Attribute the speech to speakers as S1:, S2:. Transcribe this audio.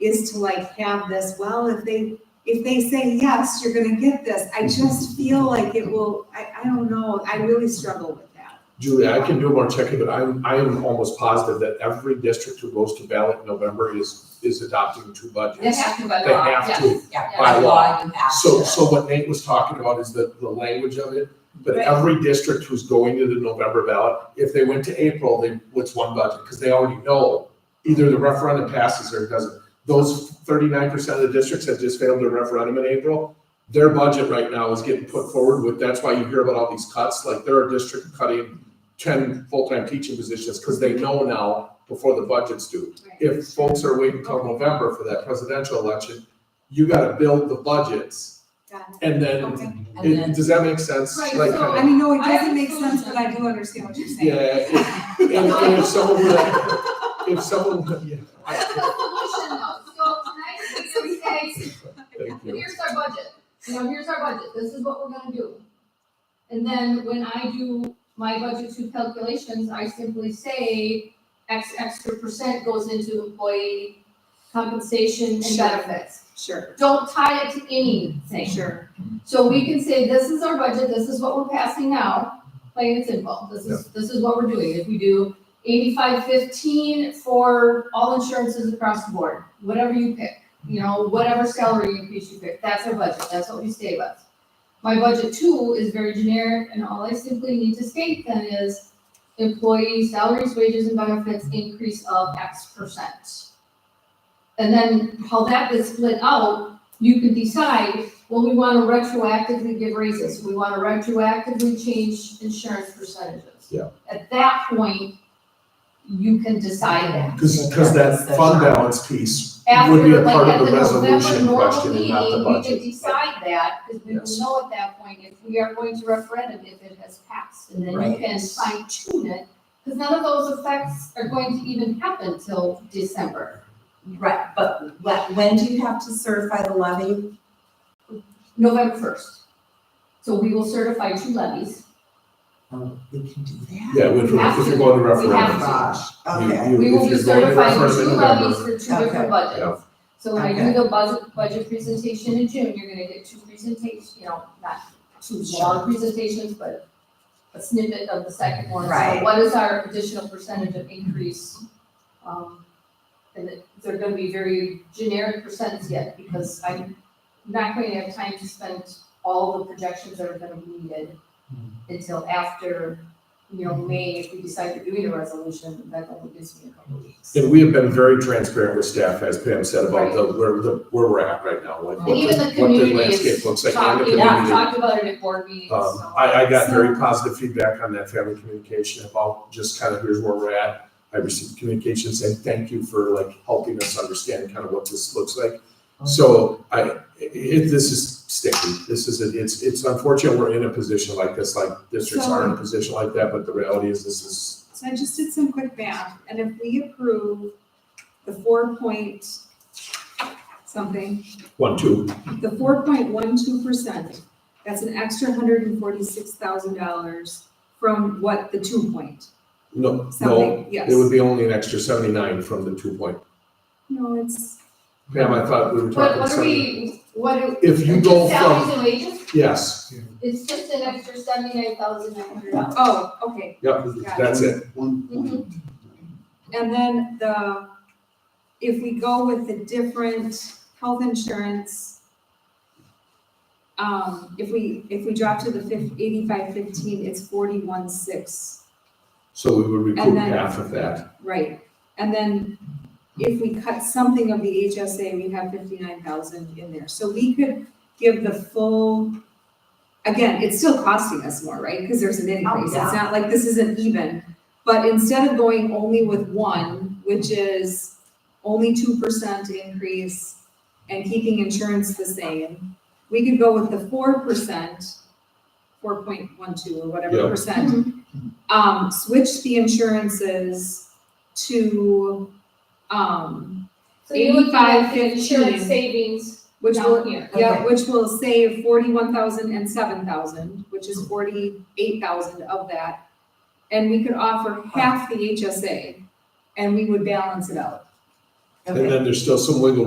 S1: is to like have this, well, if they, if they say yes, you're gonna get this. I just feel like it will, I, I don't know, I really struggle with that.
S2: Julie, I can do more checking, but I'm, I am almost positive that every district who goes to ballot in November is, is adopting two budgets.
S3: They have to by
S2: They
S3: law,
S2: have
S3: yes,
S2: to,
S3: yeah,
S2: by
S3: by law, you have to.
S2: So, so what Nate was talking about is the, the language of it, but
S1: Right.
S2: every district who's going to the November ballot, if they went to April, they, what's one budget? Because they already know either the referendum passes or it doesn't. Those thirty-nine percent of the districts that just failed their referendum in April, their budget right now is getting put forward with, that's why you hear about all these cuts, like there are districts cutting ten full-time teaching positions, because they know now before the budget's due if folks are waiting till November for that presidential election, you gotta build the budgets,
S1: Got it.
S2: and
S1: Okay.
S2: then,
S3: And
S2: it-
S3: then,
S2: does that make sense?
S3: Right,
S2: Like,
S3: so,
S2: kinda-
S1: I mean, no, it
S3: I
S1: doesn't make sense, but I
S3: understand.
S1: do understand what you're saying.
S2: Yeah, if, and- and if someone, would- if someone, would- yeah,
S4: That's
S2: I-
S4: the solution though, so it's nice to say,
S2: thank you.
S4: here's our budget, you know, here's our budget, this is what we're gonna do. And then when I do my budget two calculations, I simply say X extra percent goes into employee compensation and
S1: Sure.
S4: benefits.
S1: Sure,
S4: Don't tie it to anything.
S1: sure.
S4: So we can say, this is our budget, this is what we're passing now, plain and simple, this is, this is what we're doing. If we do eighty-five fifteen for all insurances across the board, whatever you pick, you know, whatever salary increase you pick, that's our budget, that's what we save us. My budget two is very generic, and all I simply need to state then is employee salaries, wages, and benefits increase of X percent. And then how that is split out, you can decide well, we want to retroactively give raises, we want to retroactively change insurance percentages.
S2: Yeah.
S4: At that point, you can decide that.
S2: Cause, cause that fund balance piece would be
S4: After,
S2: a
S4: like,
S2: part
S4: at
S2: of
S4: the
S2: the
S4: November
S2: resolution
S4: normal
S2: question and not the
S4: meeting, we
S2: budget.
S4: can decide that, because we will
S2: Yes.
S4: know at that point if we are going to referendum if it has passed. And then you
S3: Right.
S4: can fine tune it, because none of those effects are going to even happen till December,
S3: right, but wh- when do you have to certify the levy?
S4: November first. So we will certify two levies.
S3: Oh, we can do that.
S2: Yeah, which,
S4: have
S2: if
S4: to.
S2: you're going to
S4: We have
S2: referendum.
S4: to.
S3: Gosh, okay,
S2: you-
S4: We will
S2: if
S4: be
S2: you're going to
S4: certifying
S2: referendum
S4: two
S2: in
S4: levies
S2: November,
S4: for two
S3: Okay.
S4: different
S2: Yeah.
S4: budgets. So when I
S3: Okay.
S4: do the budget, budget presentation in June, you're gonna get two presentations, you know, not two long presentations, but a snippet of the second one. So
S3: Right.
S4: What is our additional percentage of increase? Um, and it- they're gonna be very generic percents yet, because I'm not going to have time to spend all the projections that are gonna be needed
S2: Hmm.
S4: until after, you know, May, if we decide we're doing a resolution, that only gives me a couple of weeks.
S2: And we have been very transparent with staff, as Pam said, about the, where, the, where we're at right now, like what
S4: Even
S2: the,
S4: the
S2: what the
S4: community
S2: landscape
S4: is
S2: looks like. and the
S4: Talked, yeah,
S2: community.
S4: talked about it at board meetings,
S2: Um,
S4: so.
S2: I, I got very
S1: So-
S2: positive feedback on that family communication about just kind of here's where we're at. I received communication saying, thank you for like helping us understand kind of what this looks like. So I, i- it, this is sticky. This is, a- it's, it's unfortunate we're in a position like this, like districts are in a position like that, but the reality is this is,
S1: So I just did some quick math, and if we approve the four point something,
S2: one, two,
S1: the four point one two percent, that's an extra hundred and forty-six thousand dollars from what, the two point
S2: no, no.
S1: something, yes.
S2: It would be only an extra seventy-nine from the two point.
S1: No, it's,
S2: Pam, I thought we were
S4: What,
S2: talking
S4: what are
S2: seventy.
S4: we, what do?
S2: If you go
S4: Just Salaries
S2: from,
S4: and wages,
S2: yes,
S4: it's just an extra seventy-nine thousand nine hundred dollars.
S1: oh, okay,
S2: yep, that's it.
S5: One
S4: Mhm.
S5: point.
S1: and then the, if we go with the different health insurance, um, if we, if we drop to the fif- eighty-five fifteen, it's forty-one six
S2: So we would recoup
S1: And then-
S2: half of that.
S1: Right, and then if we cut something of the HSA, we have fifty-nine thousand in there, so we could give the full. Again, it's still costing us more, right, because there's an increase, it's
S3: yeah.
S1: not like this isn't even, but instead of going only with one, which is only two percent increase. And keeping insurance the same, we could go with the four percent, four point one two or
S2: Yeah.
S1: whatever percent um, switch the insurances to, um,
S4: So you're looking at
S1: 85.15.
S4: the insurance savings
S1: which
S4: down
S1: will,
S4: here.
S1: yeah, which will save forty-one thousand and seven thousand, which is forty-eight thousand of that. And we could offer half the HSA and we would balance it out.
S2: And then there's still some wiggle